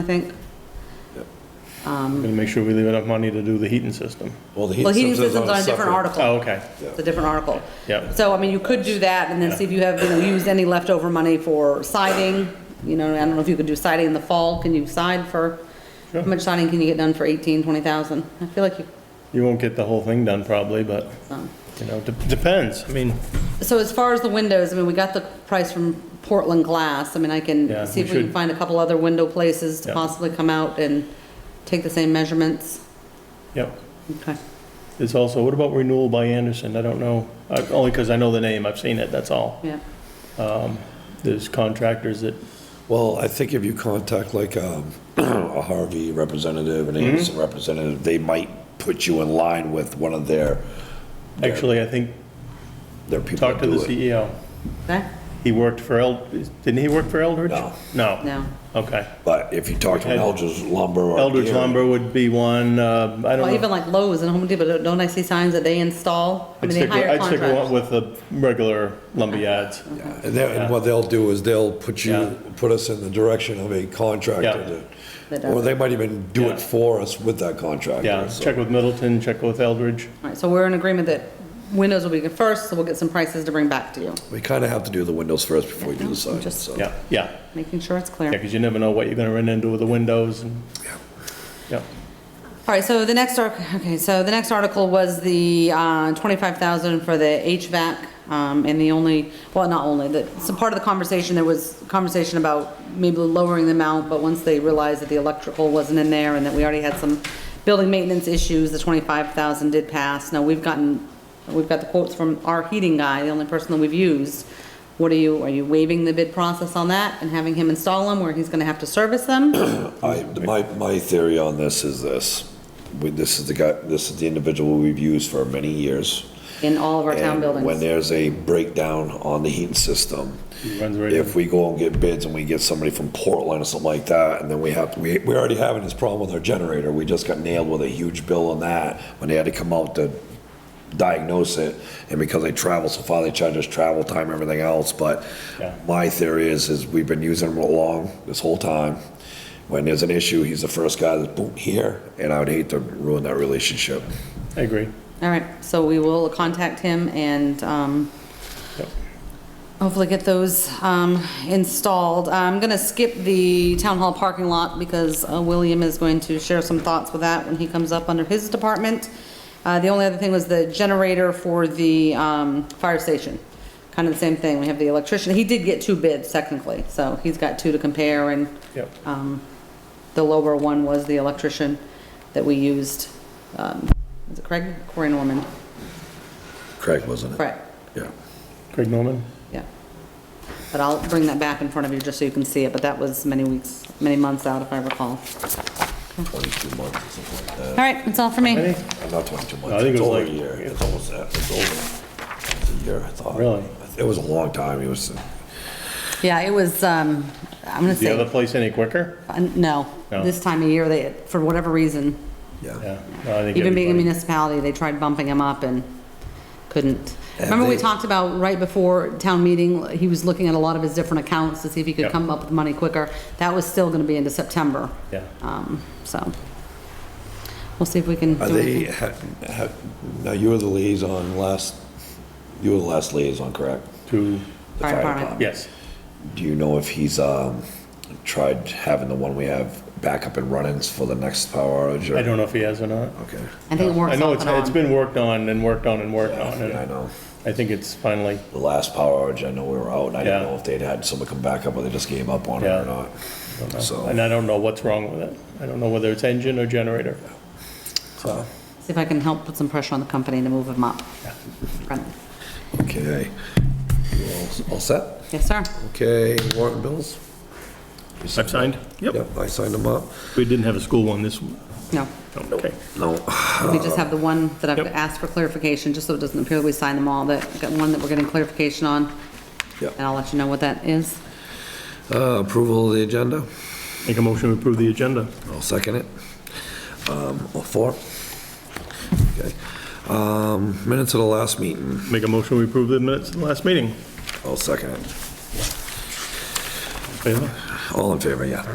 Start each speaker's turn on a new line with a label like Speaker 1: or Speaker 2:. Speaker 1: I think.
Speaker 2: We're gonna make sure we leave enough money to do the heating system.
Speaker 3: Well, the
Speaker 1: Well, heating
Speaker 3: system's
Speaker 1: system's on a different
Speaker 3: separate-
Speaker 1: article.
Speaker 2: Oh, okay.
Speaker 1: It's a different article.
Speaker 2: Yeah.
Speaker 1: So, I mean, you could do that and then see if you have, you know, used any leftover money for siding. You know, I don't know if you could do siding in the fall. Can you side for, how much siding can you get done for 18, 20,000? I feel like you,
Speaker 2: You won't get the whole thing done probably, but,
Speaker 1: um,
Speaker 2: you know, de- depends. I mean,
Speaker 1: so as far as the windows, I mean, we got the price from Portland Glass. I mean, I
Speaker 2: Yeah,
Speaker 1: can see
Speaker 2: we
Speaker 1: if we can
Speaker 2: should-
Speaker 1: find a couple other window places to
Speaker 2: Yeah.
Speaker 1: possibly come out and take the same measurements.
Speaker 2: yep.
Speaker 1: Okay.
Speaker 2: It's also, what about renewal by Anderson? I don't know. I- Only because I know the name, I've seen it, that's all.
Speaker 1: Yeah.
Speaker 2: There's contractors that,
Speaker 3: Well, I think if you contact like um, a Harvey representative, an
Speaker 2: Mm-hmm.
Speaker 3: Anderson representative, they might put you in line with one of their,
Speaker 2: actually, I think,
Speaker 3: their people
Speaker 2: talked
Speaker 3: that
Speaker 2: to the
Speaker 3: do it.
Speaker 2: CEO.
Speaker 1: Okay?
Speaker 2: He worked for El, didn't he work for Eldridge?
Speaker 3: No.
Speaker 2: No?
Speaker 1: No.
Speaker 2: Okay.
Speaker 3: But if you talk to an
Speaker 2: Ed-
Speaker 3: Eldridge Lumber or.
Speaker 2: Eldridge
Speaker 3: Gary-
Speaker 2: Lumber would be one, uh, I
Speaker 1: Well,
Speaker 2: don't
Speaker 1: even
Speaker 2: know.
Speaker 1: like Lowe's and Home Depot, don't I see signs that they install? I mean,
Speaker 2: I'd
Speaker 1: they
Speaker 2: stick with-
Speaker 1: hire
Speaker 2: I'd stick
Speaker 1: contractors.
Speaker 2: with the regular lumber yards.
Speaker 3: Yeah, And that-
Speaker 2: Yeah.
Speaker 3: and what they'll do is they'll put you,
Speaker 2: Yeah.
Speaker 3: put us in the direction of a contractor
Speaker 1: That
Speaker 3: that,
Speaker 1: does
Speaker 3: or
Speaker 1: it.
Speaker 3: they might even do
Speaker 2: Yeah.
Speaker 3: it for us with that contractor.
Speaker 2: Yeah,
Speaker 3: so.
Speaker 2: check with Middleton, check with Eldridge.
Speaker 1: All right, so we're in agreement that windows will be good first, so we'll get some prices to bring back to you,
Speaker 3: We kind of have to do the windows first before we do the
Speaker 1: I'm
Speaker 3: side,
Speaker 1: just-
Speaker 3: so.
Speaker 2: Yeah, yeah.
Speaker 1: making sure it's
Speaker 2: Yeah,
Speaker 1: clear.
Speaker 2: because you never know what you're gonna run into with the windows and, yeah.
Speaker 1: All right, so the next, arc- okay, so the next article was the uh, 25,000 for the HVAC, um, and the only, well, not only, that, so part of the conversation, there was conversation about maybe lowering the amount, but once they realized that the electrical wasn't in there and that we already had some building maintenance issues, the 25,000 did pass. Now, we've gotten, we've got the quotes from our heating guy, the only person that we've used. What are you, are you waiving the bid process on that and having him install them where he's gonna have to service them?
Speaker 3: I, my, my theory on this is this, we, this is the guy, this is the individual we've used for many years.
Speaker 1: In all of our town
Speaker 3: And
Speaker 1: buildings.
Speaker 3: When there's a breakdown on the heating system,
Speaker 2: runs right
Speaker 3: if
Speaker 2: in.
Speaker 3: we go and get bids and we get somebody from Portland or something like that, and then we have, we, we're already having this problem with our generator, we just got nailed with a huge bill on that, when they had to come out to diagnose it, and because they travel so far, they charge us travel time, and everything else, but
Speaker 2: Yeah.
Speaker 3: my theory is, is we've been using them along this whole time. When there's an issue, he's the first guy that's boom, here, and I would hate to ruin that relationship.
Speaker 2: I agree.
Speaker 1: All right, so we will contact him and um,
Speaker 2: Yep.
Speaker 1: hopefully get those um, installed. I'm going to skip the town hall parking lot because uh, William is going to share some thoughts with that when he comes up under his department. Uh, The only other thing was the generator for the um, fire station. Kind of the same thing, we have the electrician, he did get two bids technically, so he's got two to compare and
Speaker 2: Yep.
Speaker 1: um, The lower one was the electrician that we used, um, is it Craig? Corey Norman,
Speaker 3: Craig, wasn't it?
Speaker 1: correct,
Speaker 3: Yeah.
Speaker 2: Craig Norman?
Speaker 1: yeah. But I'll bring that back in front of you just so you can see it, but that was many weeks, many months out if I recall.
Speaker 3: Twenty-two months, or something
Speaker 2: Uh,
Speaker 3: like that.
Speaker 1: All right, that's all for me.
Speaker 2: Any?
Speaker 3: Uh, Not 22 months.
Speaker 2: I think it
Speaker 3: It's
Speaker 2: was
Speaker 3: over
Speaker 2: like-
Speaker 3: a year. It's almost that. It's over. It's a year, I thought.
Speaker 2: Really?
Speaker 3: It was a long time. It was, uh,
Speaker 1: Yeah, it was, um, I'm gonna
Speaker 2: The other
Speaker 1: say,
Speaker 2: place any quicker?
Speaker 1: uh, no,
Speaker 2: No.
Speaker 1: this time of year, they, for whatever reason,
Speaker 3: yeah.
Speaker 2: Yeah. no, I think
Speaker 1: even being a
Speaker 2: everybody-
Speaker 1: municipality, they tried bumping him up and couldn't.
Speaker 3: And
Speaker 1: Remember we
Speaker 3: they-
Speaker 1: talked about right before town meeting, he was looking at a lot of his different accounts to see if he could
Speaker 2: Yep.
Speaker 1: come up with money quicker. That was still gonna be into September.
Speaker 2: Yeah.
Speaker 1: Um, so, we'll see if we can
Speaker 3: Are
Speaker 1: do
Speaker 3: they,
Speaker 1: anything.
Speaker 3: ha- ha- now you were the liaison last, you were the last liaison, correct?
Speaker 2: To,
Speaker 3: The
Speaker 1: Fire department.
Speaker 2: yes.
Speaker 3: Do you know if he's um, tried having the one we have back up and running for the next power outage? or-
Speaker 2: I don't know if he has or not.
Speaker 3: Okay.
Speaker 1: I think it
Speaker 2: I
Speaker 1: works
Speaker 2: know
Speaker 1: off
Speaker 2: it's,
Speaker 1: and
Speaker 2: it's
Speaker 1: on.
Speaker 2: been worked on and worked on and worked on.
Speaker 3: Yeah, I
Speaker 2: and
Speaker 3: know.
Speaker 2: I think it's finally,
Speaker 3: The last power outage, I know we were out, and I didn't
Speaker 2: Yeah.
Speaker 3: know if they'd had someone come back up or they just gave up on it
Speaker 2: Yeah.
Speaker 3: or not. So.
Speaker 2: and I don't know what's wrong with it. I don't know whether it's engine or generator. So,
Speaker 1: See if I can help put some pressure on the company to move him up. Right.
Speaker 3: Okay. You all- All set?
Speaker 1: Yes, sir.
Speaker 3: Okay, warrant and bills?
Speaker 2: I've signed? Yep.
Speaker 3: Yep, I signed them up.
Speaker 2: We didn't have a school one this,
Speaker 1: No,
Speaker 2: okay.
Speaker 3: No.
Speaker 1: we just have the one that I've
Speaker 2: Yep.
Speaker 1: asked for clarification, just so it doesn't appear that we signed them all, that, got one that we're getting clarification on.
Speaker 3: Yep.
Speaker 1: And I'll let you know what that is.
Speaker 3: Uh, Approval of the agenda?
Speaker 2: Make a motion to approve the agenda.
Speaker 3: I'll second it. Um, All four? Okay. Um, Minutes of the last meeting?
Speaker 2: Make a motion to approve the minutes of the last meeting.
Speaker 3: I'll second it.
Speaker 2: Favor?
Speaker 3: All in favor, yeah.